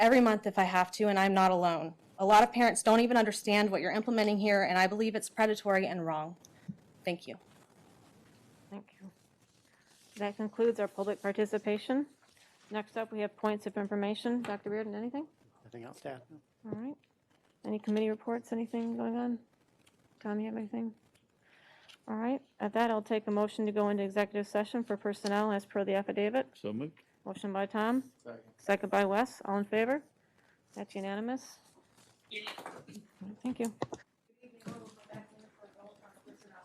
every month if I have to, and I'm not alone. A lot of parents don't even understand what you're implementing here, and I believe it's predatory and wrong. Thank you. Thank you. That concludes our public participation. Next up, we have points of information. Dr. Reardon, anything? Nothing else to add? All right. Any committee reports, anything going on? Tom, you have anything? All right. At that, I'll take a motion to go into executive session for personnel as per the affidavit. So moved. Motion by Tom. Second. Second by Wes. All in favor? That's unanimous. All right, Thank you.